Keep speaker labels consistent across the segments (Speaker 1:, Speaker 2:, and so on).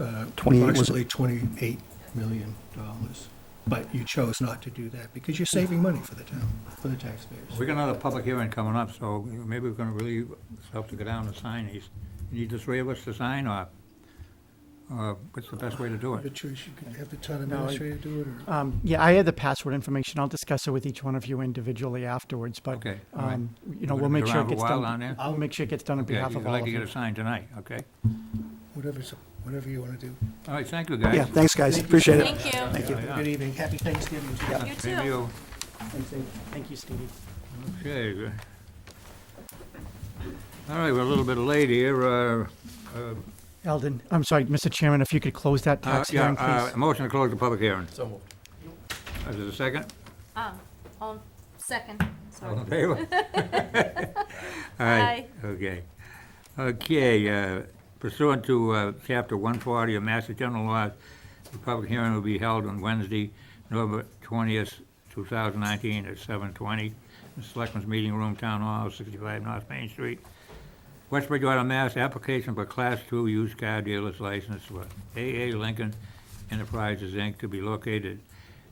Speaker 1: uh,
Speaker 2: 28 was-
Speaker 1: approximately $28 million. But you chose not to do that because you're saving money for the town, for the taxpayers.
Speaker 3: We got another public hearing coming up, so maybe we're gonna really have to go down and sign these. You Need the three of us to sign, or, or what's the best way to do
Speaker 1: Your
Speaker 3: it?
Speaker 1: choice, you could have the town
Speaker 4: No, I-
Speaker 1: administrator do it, or
Speaker 4: Um, yeah, I had the password information. I'll discuss it with each one of you individually afterwards, but,
Speaker 3: Okay, all right.
Speaker 4: um, you know,
Speaker 3: We're
Speaker 4: we'll
Speaker 3: gonna
Speaker 4: make
Speaker 3: go
Speaker 4: sure
Speaker 3: around
Speaker 4: it
Speaker 3: for a
Speaker 4: gets
Speaker 3: while
Speaker 4: done.
Speaker 3: on there?
Speaker 4: I'll make sure it gets done on
Speaker 3: Okay,
Speaker 4: behalf
Speaker 3: I'd
Speaker 4: of all
Speaker 3: like
Speaker 4: of
Speaker 3: to get
Speaker 4: you.
Speaker 3: it signed tonight, okay?
Speaker 1: whatever's, whatever you want to do.
Speaker 3: All right, thank you, guys.
Speaker 2: Yeah, thanks, guys. Appreciate it.
Speaker 5: Thank you.
Speaker 2: Thank you.
Speaker 3: Yeah.
Speaker 1: Good evening, happy Thanksgiving. to you.
Speaker 5: You
Speaker 3: Same to
Speaker 5: too.
Speaker 3: you.
Speaker 4: Thank you, Stevie.
Speaker 3: Okay. good. All right, we're a little bit late here. Uh, uh,
Speaker 4: Eldon, I'm sorry, Mr. Chairman, if you could close that
Speaker 3: uh,
Speaker 4: tax
Speaker 3: Yeah.
Speaker 4: hearing, please.
Speaker 3: uh, Motion to close the public hearing. So moved. Is there a second?
Speaker 5: Ah, on second,
Speaker 3: All in
Speaker 5: sorry.
Speaker 3: favor? Aye. Okay. Okay, uh, pursuant to uh, Chapter 140 of Master General Laws, the public hearing will be held on Wednesday, November 20th, 2019, at 7:20 in the Selectmen's Meeting Room, Town Hall, 65 North Main Street, West Bridgewater, Mass. Application for Class II used car dealer's license for AA Lincoln Enterprises, Inc., to be located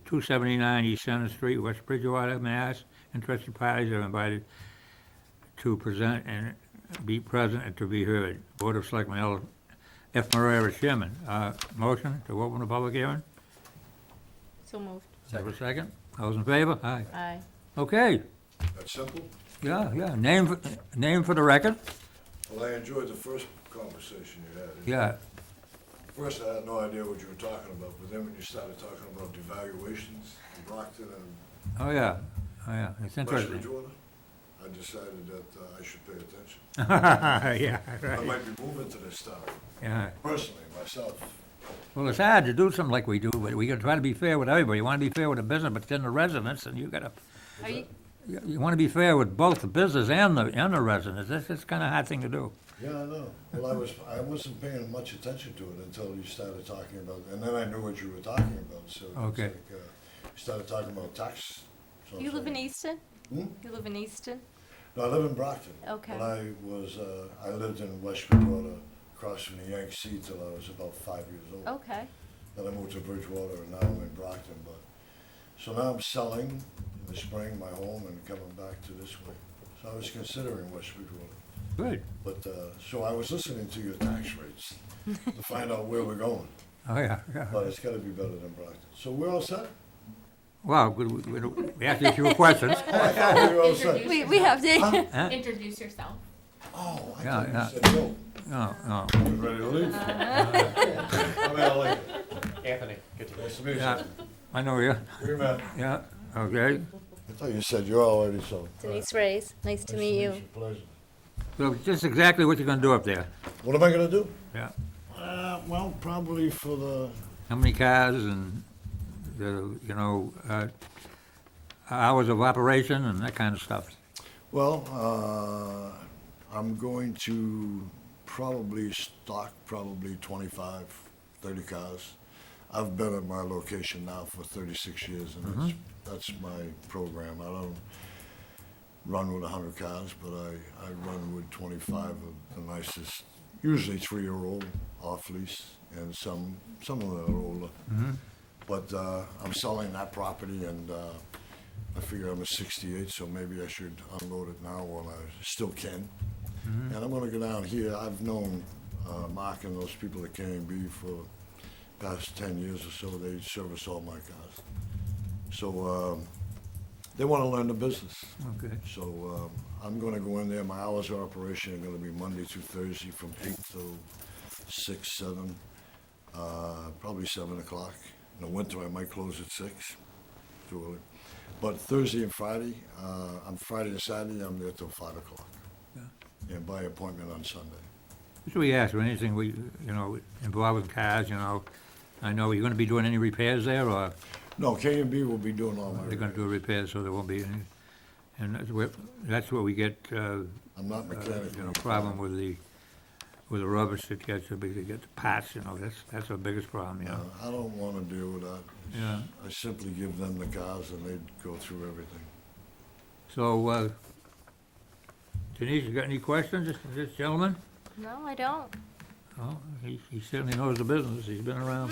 Speaker 3: 279 East Center Street, West Bridgewater, Mass. Interested parties are invited to present and be present and to be heard. Board of Selectmen, L. F. Moreira, Chairman. Uh, Motion to open the public hearing?
Speaker 5: So moved.
Speaker 3: Have a second? Those in favor? Aye.
Speaker 5: Aye.
Speaker 3: Okay,
Speaker 6: That's simple.
Speaker 3: yeah, yeah. Name, for- name for the record?
Speaker 6: Well, I enjoyed the first conversation you had.
Speaker 3: Yeah,
Speaker 6: First, I had no idea what you were talking about, but then when you started talking about devaluations in Brockton and
Speaker 3: oh, yeah, oh, yeah. It's
Speaker 6: West
Speaker 3: interesting.
Speaker 6: Bridgewater, I decided that uh, I should pay attention.
Speaker 3: Yeah,
Speaker 6: I
Speaker 3: right,
Speaker 6: might be moving to this town,
Speaker 3: yeah.
Speaker 6: personally, myself.
Speaker 3: Well, it's hard to do something like we do, but we gotta try to be fair with everybody. You wanna be fair with the business, but then the residents, and you gotta,
Speaker 5: Are you,
Speaker 3: you- you wanna be fair with both the business and the, and the residents. That's, that's kinda a hard thing to do.
Speaker 6: Yeah, I know. Well, I was, I wasn't paying much attention to it until you started talking about, and then I knew what you were talking about, so. it's
Speaker 3: Okay.
Speaker 6: like, uh, You started talking about tax. so I'm
Speaker 5: you live in
Speaker 6: saying-
Speaker 5: Easton?
Speaker 6: Hmm?
Speaker 5: You live in Easton?
Speaker 6: No, I live in Brockton.
Speaker 5: Okay.
Speaker 6: But I was, uh, I lived in West Bridgewater, across from the Yangtze till I was about five years old.
Speaker 5: Okay.
Speaker 6: Then I moved to Bridgewater, and now I'm in Brockton, but, so now I'm selling in the spring my home and coming back to this way. So I was considering West Bridgewater,
Speaker 3: Good.
Speaker 6: but, uh, so I was listening to your tax rates to find out where we're going,
Speaker 3: Oh, yeah, yeah.
Speaker 6: but it's gotta be better than Brockton. So we're all set?
Speaker 3: Wow, good, we- we- we asked you a few questions.
Speaker 6: I thought we were all set.
Speaker 7: Introduce
Speaker 5: We, we have the,
Speaker 3: Huh?
Speaker 7: Introduce yourself.
Speaker 6: Oh, I
Speaker 3: Yeah,
Speaker 6: thought
Speaker 3: yeah.
Speaker 6: you said no.
Speaker 3: No, no.
Speaker 6: You ready to leave? I'm Al Lincoln.
Speaker 8: Anthony, good to
Speaker 6: Nice to meet you.
Speaker 3: Yeah, I know you,
Speaker 6: Where you at?
Speaker 3: yeah, okay.
Speaker 6: I thought you said you're already sold.
Speaker 5: Denise Reyes, nice to meet you.
Speaker 3: So just exactly what you're gonna do up there,
Speaker 6: What am I gonna do?
Speaker 3: yeah.
Speaker 6: Uh, well, probably for the.
Speaker 3: How many cars and, the, you know, uh, hours of operation and that kind of stuff.
Speaker 6: Well, uh, I'm going to probably stock probably 25, 30 cars. I've been at my location now for 36 years, and that's, that's my program. I don't run with 100 cars, but I, I run with 25 of the nicest, usually three year old off lease, and some, some of them are older. But uh, I'm selling that property, and uh, I figure I'm a 68, so maybe I should unload it now while I still can. And I'm going to go down here. I've known uh, Mark and those people at B for past 10 years or so. They service all my cars. So um, they want to learn the business.
Speaker 3: Okay.
Speaker 6: So um, I'm going to go in there. My hours of operation are going to be Monday through Thursday from 8 till 6, 7, uh, probably 7 o'clock. In the winter, I might close at 6, too early. But Thursday and Friday, uh, on Friday and Saturday, I'm there till 5 o'clock. And by appointment on Sunday.
Speaker 3: Should we ask for anything we, you know, involving cars, you know? I know, are you gonna be doing any repairs there, or
Speaker 6: No, K and B will be doing all my.
Speaker 3: they're gonna do repairs so there won't be any? And that's where, that's where we get, uh,
Speaker 6: I'm not
Speaker 3: uh,
Speaker 6: mechanical.
Speaker 3: you know, problem with the, with the rubbish that gets, to be- to get the parts, you know, that's, that's our biggest problem, you
Speaker 6: Uh,
Speaker 3: know?
Speaker 6: I don't want to deal with that.
Speaker 3: Yeah.
Speaker 6: I simply give them the cars and they go through everything.
Speaker 3: So, uh, Denise, you got any questions, this- this gentleman? Oh,
Speaker 5: No, I don't.
Speaker 3: Well, he he certainly knows the business, he's been around